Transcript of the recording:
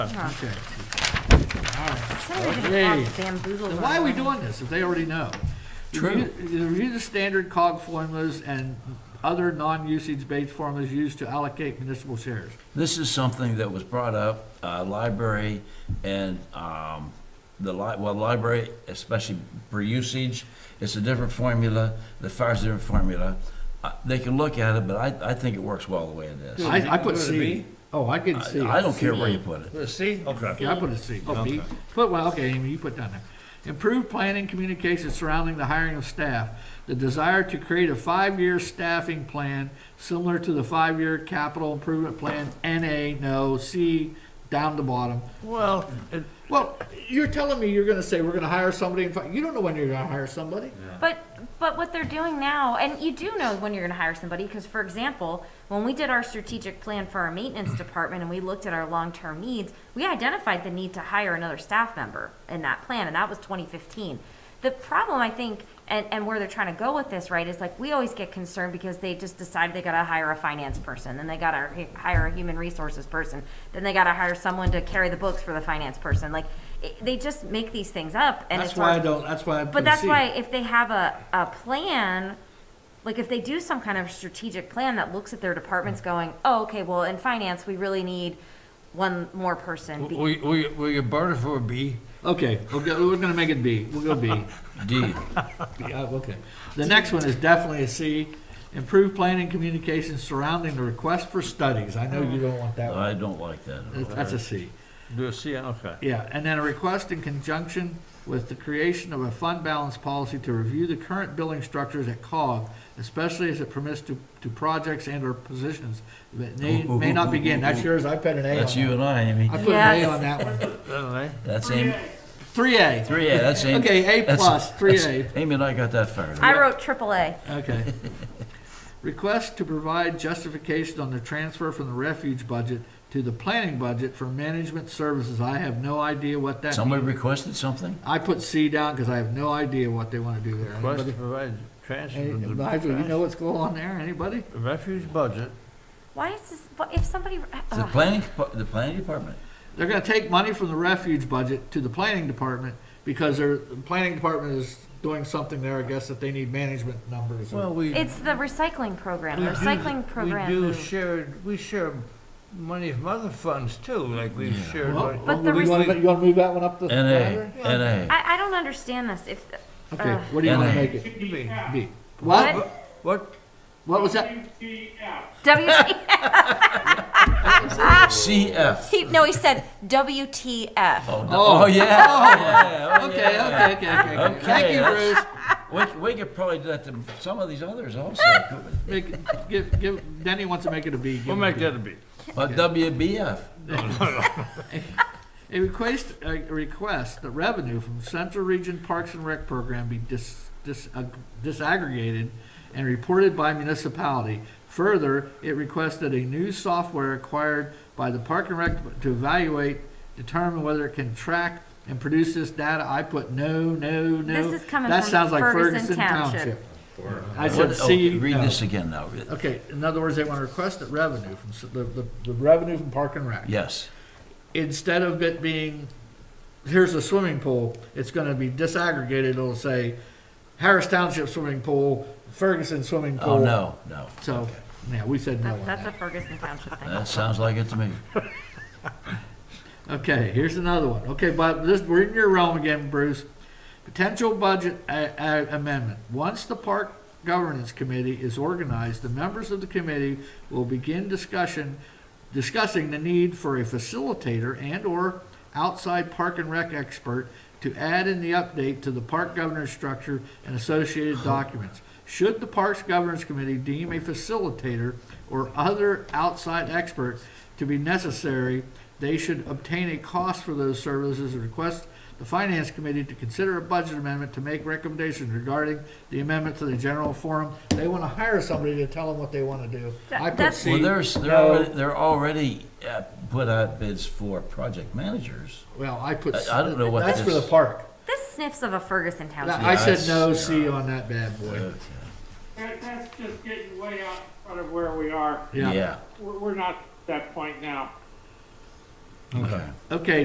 Okay. All right. Somebody Okay. to have bamboozled. Then my why are we mind. doing this if they already know? True. Review review the standard COG formulas and other non-usage-based formulas used to allocate municipal shares. This is something that was brought up, uh, library and, um, the li- well, library, especially for usage, it's a different formula, the fire's a different formula. Uh, They can look at it, but I, I think it works well the way it is. I, I, I put Go to C. B? Oh, I could C. I don't care where you put it. See? Okay. Yeah, I put a C. Oh, B. Put, well, okay, Amy, you put down there. Improve planning communication surrounding the hiring of staff. The desire to create a five-year staffing plan similar to the five-year capital improvement plan, NA, no, C, down the bottom. Well, it- Well, you're telling me you're gonna say we're gonna hire somebody in five, you don't know when you're gonna hire somebody. But, but what they're doing now, and you do know when you're gonna hire somebody, because for example, when we did our strategic plan for our maintenance department and we looked at our long-term needs, we identified the need to hire another staff member in that plan, and that was twenty fifteen. The problem, I think, and, and where they're trying to go with this, right, is like, we always get concerned because they just decide they gotta hire a finance person, then they gotta hi- hire a human resources person, then they gotta hire someone to carry the books for the finance person, like, it- they just make these things up, and it's That's our- why I don't, that's why I put but that's C. why if they have a, a plan, like if they do some kind of strategic plan that looks at their Hmm. departments going, oh, okay, well, in finance, we really need one more person. be- will you- will you- will you burn it for a B? Okay, we'll go, we're gonna make it B, we'll go B. D, Yeah, okay. The next one is definitely a C. Improve planning communication surrounding the request for studies. I know you don't want that one. I don't like that. at all. That's a C. Do a C, okay. Yeah, and then a request in conjunction with the creation of a fund balance policy to review the current billing structures at COG, especially as it permits to, to projects and or positions that may, may not begin. That's yours, I put an A on That's you that. and I, Amy. I put an A on that one. Anyway, That's Amy, Three A. three A, that's Amy. Okay, A that's- plus, three A. that's- Amy and I got that fired. I wrote triple A. Okay. Request to provide justification on the transfer from the refuge budget to the planning budget for management services. I have no idea what that Somebody means. requested something? I put C down because I have no idea what they want to do there. Request to Anybody- provide Hey, transfer. to Nigel, you know what's going on there? Anybody? Refuge budget. Why is this, what if somebody, The ugh. planning, depa- the planning department. They're gonna take money from the refuge budget to the planning department because their, the planning department is doing something there, I guess, that they need management numbers. or- Well, we. it's the recycling program, we the do- recycling program. We do move. shared, we share money from other funds too, like we've shared. Well, money- But the You wanna, rec- you wanna move that one up the? NA, NA. I, I don't understand this, if, Okay, Ugh. what do you wanna NA. make it? B. What? What? What? What was that? WT, CF. he, no, he said WTF. Oh, oh yeah. Oh, yeah. Okay, okay, okay, okay, okay. Thank you, Bruce. We, we could probably do that to some of these others also. couldn't Make, give, give, Denny wants to make it a B. give We'll him a make B. that a B. we? But WBF. A request, a request that revenue from Central Region Parks and Rec Program be dis, dis, ag- disaggregated and reported by municipality. Further, it requested a new software acquired by the Park and Rec to evaluate, determine whether it can track and produce this data. I put no, no, no. This is coming That from sounds like Ferguson Township. I What- said, oh, see, Read no. this again now. Okay, in other words, they want to request that revenue from, s- the, the, the revenue from Park and Rec. Yes. Instead of it being, here's a swimming pool, it's gonna be disaggregated, it'll say Harris Township Swimming Pool, Ferguson Swimming Pool. Oh, no, no. So, yeah, we said no That- on That's a that. Ferguson Township thing. That sounds like it to me. Okay, here's another one. Okay, but this, we're in your realm again, Bruce. Potential budget a- a- amendment. Once the park governance committee is organized, the members of the committee will begin discussion, discussing the need for a facilitator and/or outside park and rec expert to add in the update to the park governance structure and associated documents. Should the Parks Governance Committee deem a facilitator or other outside expert to be necessary, they should obtain a cost for those services and request the Finance Committee to consider a budget amendment to make recommendations regarding the amendment to the general forum. They want to hire somebody to tell them what they want to do. I That- put that's- Well, C. there's, they're no. already, they're already uh, put out bids for project managers. Well, I put. C. I- I don't know what That's for the this- park. This sniffs of a Ferguson Township. I said that's- no C on that bad boy. Okay. That, that's just getting way out in front of where we are. Yeah. Yeah. We're, we're not at that point now. Okay. Okay,